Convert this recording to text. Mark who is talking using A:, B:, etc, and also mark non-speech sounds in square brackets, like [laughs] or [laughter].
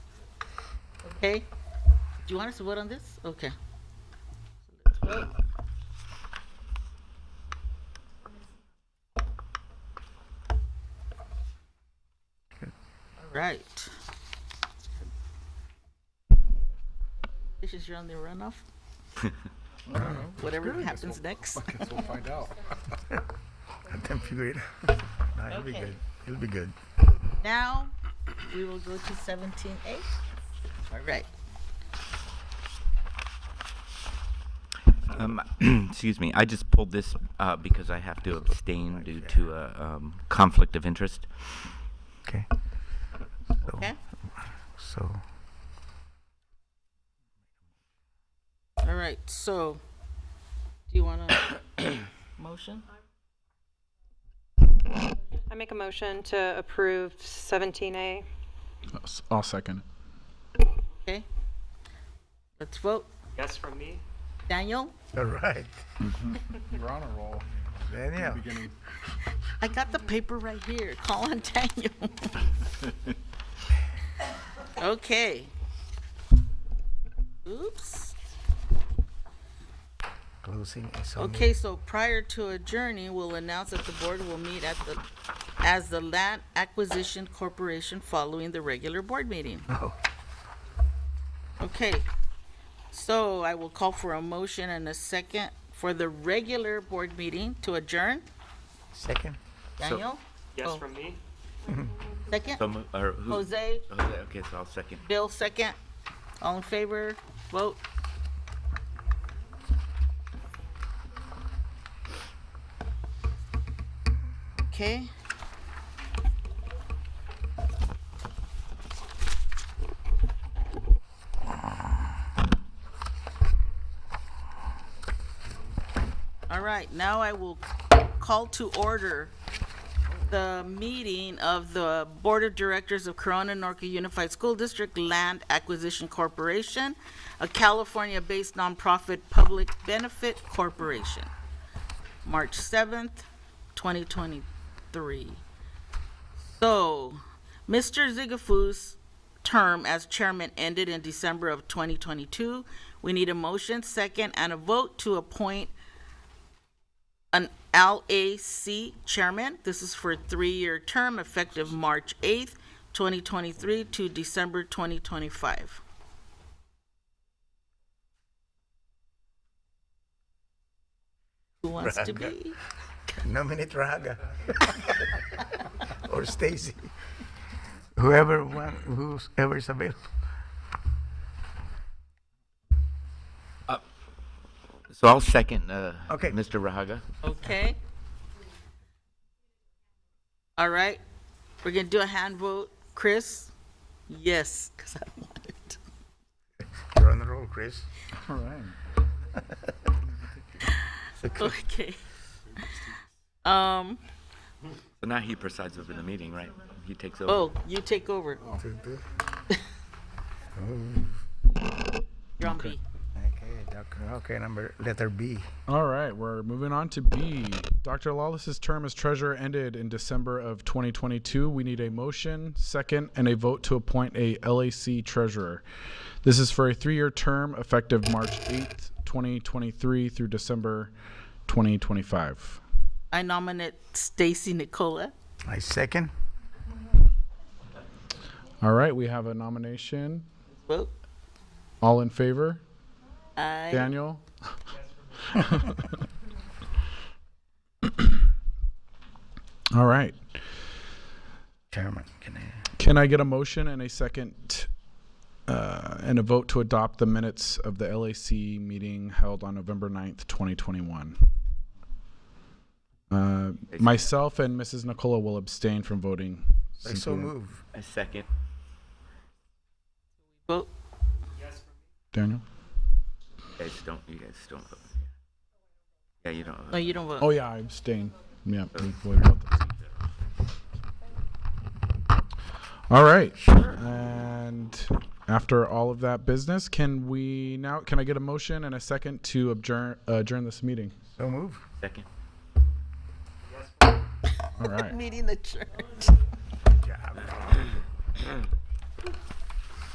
A: Okay. Do you want us to vote on this? Okay. All right. This is your only runoff? Whatever happens next.
B: I guess we'll find out.
C: [laughs] Let them figure it. No, it'll be
A: Okay.
C: good. It'll be good.
A: [laughs] Now, we will go to seventeen A. All right.
D: Um, [clears throat] excuse me, I just pulled this uh, because I have to abstain due to a um, conflict of interest.
C: Okay. So,
A: Okay,
C: so
A: all right, so, do you want a motion?
E: I make a motion to approve 17A.
B: I'll second.
A: Okay. Let's vote.
F: Yes from me.
A: Daniel,
C: all right.
B: You're on a roll.
C: Daniel.
B: Beginning.
A: I got the paper right here. Call on
F: [laughs]
A: Daniel. Okay. Oops.
C: Closing is on me.
A: Okay, so prior to adjourning, we'll announce that the board will meet at the, as the Land Acquisition Corporation following the regular board meeting.
C: Oh,
A: Okay, so I will call for a motion and a second for the regular board meeting to adjourn.
C: second.
A: Daniel,
F: Yes
A: Oh.
F: from me.
A: [laughs] second.
D: So, mo- uh, or who?
A: Jose,
D: Jose, okay, so I'll second.
A: Bill, second. All in favor, vote. Okay. All right, now I will call to order the meeting of the Board of Directors of Corona Norca Unified School District Land Acquisition Corporation, a California-based nonprofit public benefit corporation, March 7th, 2023. So, Mr. Zigafoo's term as chairman ended in December of 2022. We need a motion, second, and a vote to appoint an LAC chairman. This is for a three-year term effective March 8th, 2023 to December 2025. Who wants to be?
C: Nominate Raga. [laughs] or Stacy. Whoever one, whoever is available.
D: So I'll second, uh,
C: Okay.
D: Mr. Rahaga.
A: Okay. All right, we're gonna do a hand vote. Chris? Yes, 'cause I want it.
C: You're on the roll, Chris.
B: All right.
A: Okay. Um,
D: So now he presides over the meeting, right? He takes over.
A: oh, you take over. You're on B.
C: Okay, doctor. Okay, number letter B.
B: All right, we're moving on to B. Dr. Lawless's term as treasurer ended in December of 2022. We need a motion, second, and a vote to appoint a LAC treasurer. This is for a three-year term effective March 8th, 2023 through December 2025.
A: I nominate Stacy Nicola.
C: I second.
B: All right, we have a nomination.
A: Vote.
B: All in favor?
A: I,
B: Daniel? [laughs] All right.
C: Chairman, can I?
B: Can I get a motion and a second uh, and a vote to adopt the minutes of the LAC meeting held on November 9th, 2021? Uh, myself and Mrs. Nicola will abstain from voting.
C: I so
B: Simply-
C: move.
D: I second.
A: vote.
B: Daniel?
D: You guys don't, you guys don't vote. Yeah, you don't. vote.
A: No, you don't vote.
B: Oh, yeah, I abstain. Yeah. we voted about that. All right. And after all of that business, can we now, can I get a motion and a second to adjourn, adjourn this meeting?
C: So move.
D: Second.
B: All right.
A: Meeting adjourned.